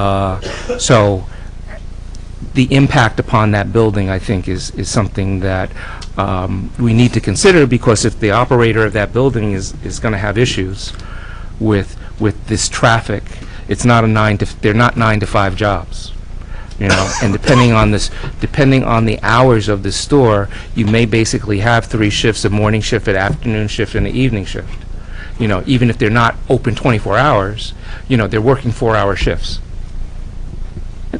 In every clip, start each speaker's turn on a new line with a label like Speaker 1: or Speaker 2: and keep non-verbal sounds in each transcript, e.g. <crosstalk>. Speaker 1: Uh, So the impact upon that building, I think, is, is something that um, we need to consider, because if the operator of that building is, is going to have issues with, with this traffic, it's not a nine to, they're not nine to five jobs, you know? And depending on this, depending on the hours of the store, you may basically have three shifts, a morning shift, an afternoon shift, and an evening shift. You know, even if they're not open 24 hours, you know, they're working four-hour shifts.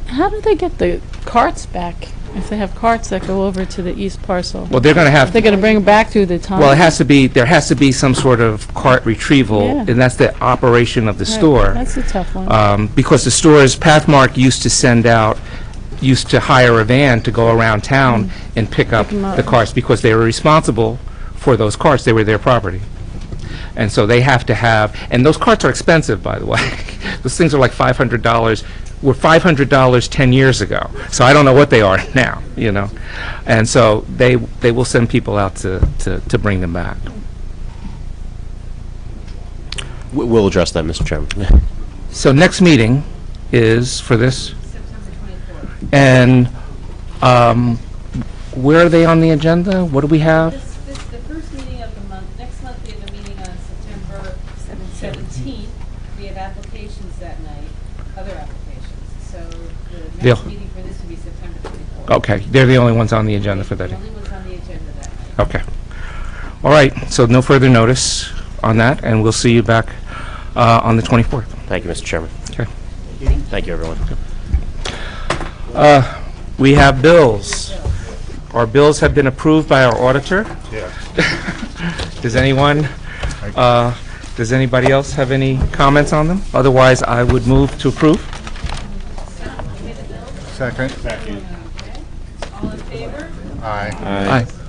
Speaker 2: How do they get the carts back, if they have carts that go over to the east parcel?
Speaker 1: Well, they're going to have,
Speaker 2: They're gonna bring them back through the time?
Speaker 1: Well, it has to be, there has to be some sort of cart retrieval,
Speaker 2: Yeah.
Speaker 1: and that's the operation of the
Speaker 2: Right,
Speaker 1: store.
Speaker 2: That's a tough one.
Speaker 1: Um, Because the stores, Pathmark used to send out, used to hire a van to go around town and pick up
Speaker 2: Mm-hmm. 'em up.
Speaker 1: the carts, because they were responsible for those carts, they were their property. And so they have to have, and those carts are expensive, by the way. <laughs> Those things are like $500, were $500 10 years ago, so I don't know what they are <laughs> now, you know? And so they, they will send people out to, to to bring them back.
Speaker 3: We- We'll address that, Mr. Chairman.
Speaker 1: So next meeting is for this? September 24th. And um, where are they on the agenda? What do we have?
Speaker 4: This, this, the first meeting of the month, next month we have a meeting on September seventeenth. We have applications that night, other applications, so the
Speaker 1: They'll-
Speaker 4: next meeting for this would be September twenty-fourth.
Speaker 1: Okay, they're the only ones on the agenda for that.
Speaker 4: The only ones on the agenda that night.
Speaker 1: Okay. All right, so no further notice on that, and we'll see you back uh, on the 24th.
Speaker 3: Thank you, Mr. Chairman.
Speaker 1: Okay.
Speaker 3: Thank you, everyone.
Speaker 1: We have bills. Our bills have been approved by our auditor. Does anyone, uh, does anybody else have any comments on them? Otherwise, I would move to approve.
Speaker 5: Second.
Speaker 4: All in favor?
Speaker 5: Aye.
Speaker 1: Aye.